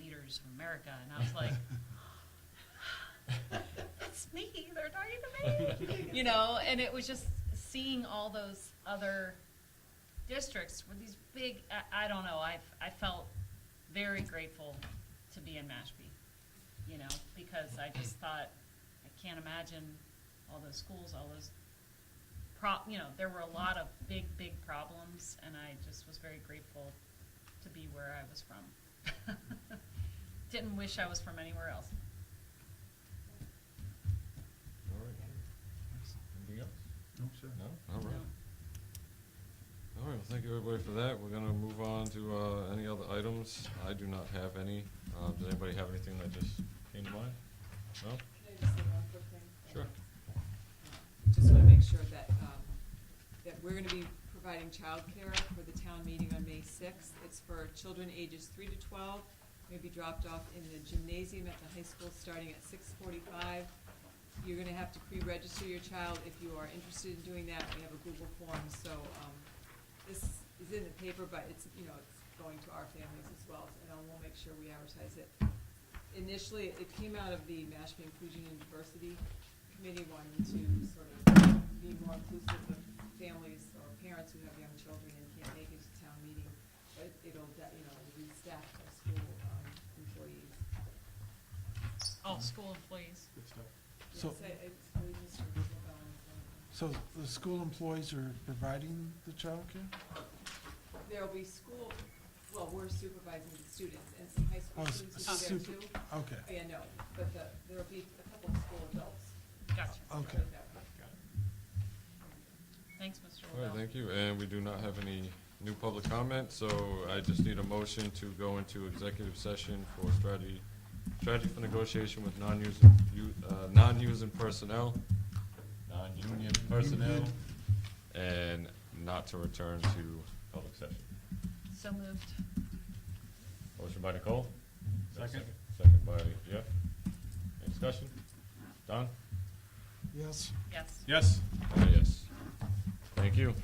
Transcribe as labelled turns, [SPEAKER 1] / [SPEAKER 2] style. [SPEAKER 1] Teachers of America, and I was like, it's me, they're talking to me, you know, and it was just seeing all those other districts with these big, I, I don't know, I, I felt very grateful to be in Mashpee, you know, because I just thought, I can't imagine all those schools, all those pro, you know, there were a lot of big, big problems, and I just was very grateful to be where I was from. Didn't wish I was from anywhere else.
[SPEAKER 2] All right. Anything else?
[SPEAKER 3] No, sir.
[SPEAKER 2] No? All right.
[SPEAKER 1] No.
[SPEAKER 2] All right, well, thank you everybody for that. We're gonna move on to, uh, any other items. I do not have any. Um, does anybody have anything that just came to mind? No?
[SPEAKER 4] Can I just say one quick thing?
[SPEAKER 2] Sure.
[SPEAKER 4] Just wanna make sure that, um, that we're gonna be providing childcare for the town meeting on May sixth. It's for children ages three to twelve, may be dropped off in the gymnasium at the high school starting at six forty-five. You're gonna have to pre-register your child if you are interested in doing that. We have a Google form, so, um, this is in the paper, but it's, you know, it's going to our families as well, and I will make sure we advertise it initially, it came out of the Mashpee Inclusion and Diversity Committee wanting to sort of be more inclusive of families or parents who have young children and can't make it to town meeting. But it'll, de- you know, it'll be staff or school um, employees.
[SPEAKER 1] All school employees.
[SPEAKER 3] Good stuff.
[SPEAKER 5] So-
[SPEAKER 4] Yes, I- I believe Mr. Isabel is
[SPEAKER 5] So the school employees are providing the childcare?
[SPEAKER 4] on. um, There'll be school, well, we're supervising the students and some high
[SPEAKER 5] Oh,
[SPEAKER 4] school
[SPEAKER 5] s-
[SPEAKER 4] students will be
[SPEAKER 5] super-
[SPEAKER 4] there too.
[SPEAKER 5] Okay,
[SPEAKER 4] Yeah, no, but the, there'll be a couple of school adults.
[SPEAKER 1] Gotcha.
[SPEAKER 5] okay.
[SPEAKER 1] Thanks, Mr.
[SPEAKER 2] All right,
[SPEAKER 1] Lavelle.
[SPEAKER 2] thank you. And we do not have any new public comment, so I just need a motion to go into executive session for strategy, strategy for negotiation with non-using, u- uh, non-using personnel, non-union personnel, and not to return to public session.
[SPEAKER 1] So moved.
[SPEAKER 2] Motion by Nicole? Second. Second by Jeff. Any discussion? Don?
[SPEAKER 5] Yes.
[SPEAKER 1] Yes.
[SPEAKER 2] Yes. Yes. Thank you.